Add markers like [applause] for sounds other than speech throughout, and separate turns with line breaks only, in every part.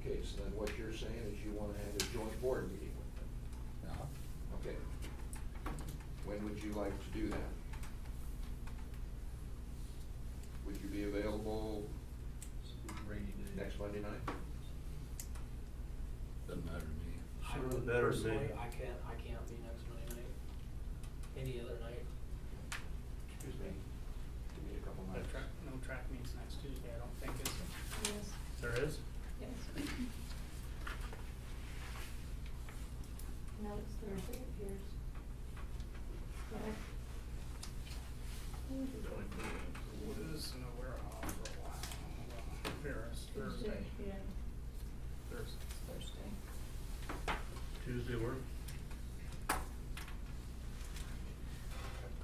Okay, so then what you're saying is you wanna have a joint board meeting with them? Okay. When would you like to do that? Would you be available next Monday night?
Doesn't matter to me.
I
Sooner the
would
better,
personally-
Zane.
I can't, I can't be next Monday night, any other night.
Excuse me, give me a couple
No
minutes.
track, no track meets next Tuesday, I don't think, is there?
Yes,
There is?
yes. No, it's Thursday, it appears. Correct?
It is, no, we're off for a while. Well, Here, it's Thursday.
Tuesday, yeah,
Thursday.
it's Thursday.
Tuesday work?
If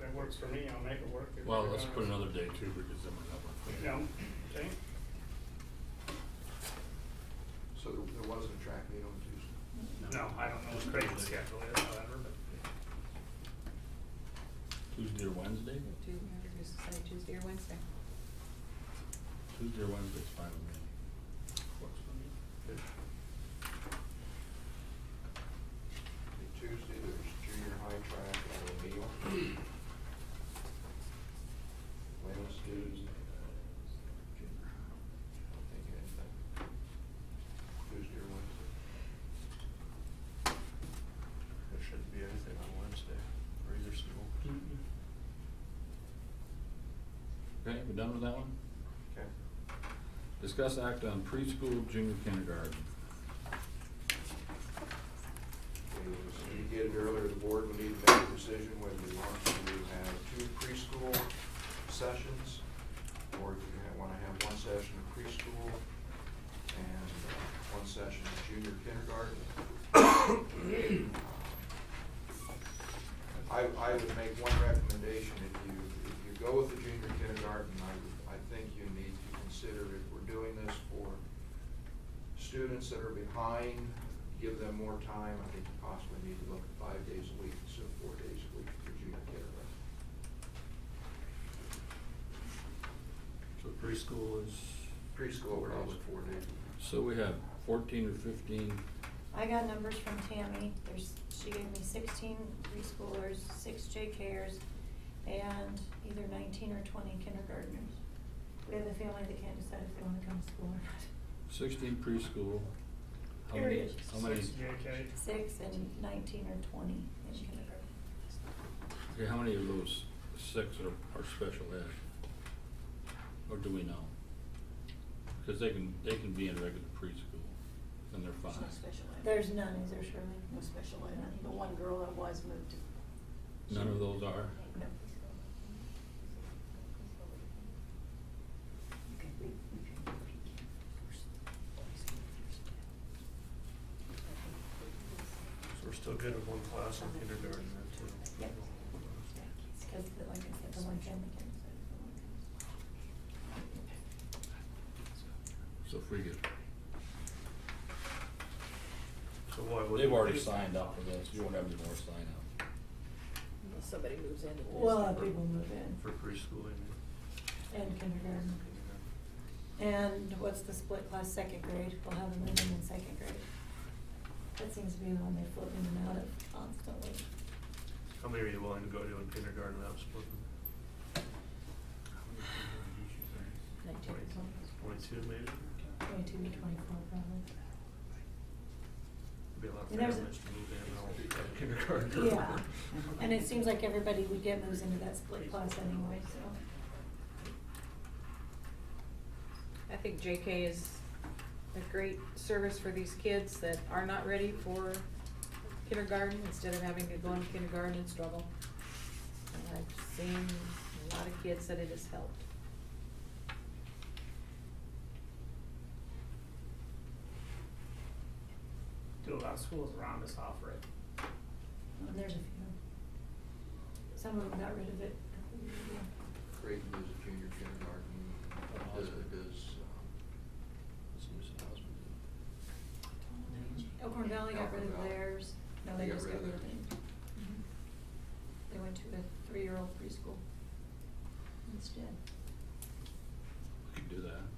That works for me, I'll make it work. If
Well,
you're
let's
gonna-
put another day too, because then we're not working.
No, okay,
So there there wasn't a track meet on Tuesday?
no, I don't know what Creighton's schedule is, however, but
Tuesday or Wednesday?
Tuesday, say Tuesday or Wednesday.
Tuesday or Wednesday's fine with
works for me.
me.
Okay, Tuesday, there's junior high track at O'Neill. Wednesday, I don't think anything. Tuesday or Wednesday?
There shouldn't be anything on Wednesday, or either school.
Okay, we done with that one?
Okay.
Discuss act on preschool junior kindergarten.
As you did earlier, the board will need to make a decision whether you want to have two preschool sessions, or if you want to have one session of preschool and uh, one session of junior kindergarten. I, I would make one recommendation, if you, if you go with the junior kindergarten, I, I think you need to consider if we're doing this for students that are behind, give them more time. I think you possibly need to look at five days a week instead of four days a week for junior kindergarten.
So preschool is,
Preschool, we're always four days.
So we have fourteen or fifteen,
I got numbers from Tammy, there's, she gave me sixteen preschoolers, six JKers, and either nineteen or twenty kindergartners. We have a family that can't decide if they wanna come to school or not.
sixteen preschool. How many?
Period.
How many,
Six JK.
Six and nineteen or twenty in kindergarten.
okay, how many of those six are, are special ed? Or do we know? Because they can, they can be in regular preschool, and they're fine.
There's no special ed.
There's none, is there Shirley?
No special ed. The one girl that was moved to.
None of those are?
No. Okay, we- we can- we can first- first- first.
So we're still good with one class in kindergarten then too?
Yep. It's cause the, like I said, the one family can decide if they wanna come.
So if we get,
So why would?
they've already signed up for this, you won't have any more sign up.
Unless somebody moves in. and
Well,
there's-
uh, people move in.
For preschool, I mean.
And kindergarten. And what's the split class, second grade, we'll have them in in second grade. That seems to be the one they flip in and out of constantly.
How many are you willing to go to in kindergarten without splitting?
Nineteen or twenty.
Twenty-two maybe?
Twenty-two to twenty-four probably.
Be a lot of
And there's
families
a-
to move in and all have kindergarten.
Yeah,
[laughs]
and it seems like everybody we get moves into that split class anyway, so.
I think JK is a great service for these kids that are not ready for kindergarten, instead of having to go into kindergarten and struggle. And I've seen a lot of kids that it has helped.
Do a lot of schools around us offer it.
And there's a few. Some of them got rid of it.
Creighton is a junior kindergarten, Elizabeth is, um,
Let's use the hospital.
Elkhorn Valley got rid of theirs, no, they
They got
just
rid
got
of
rid of it.
theirs.
Mhm. They went to a three-year-old preschool instead.
We could do that.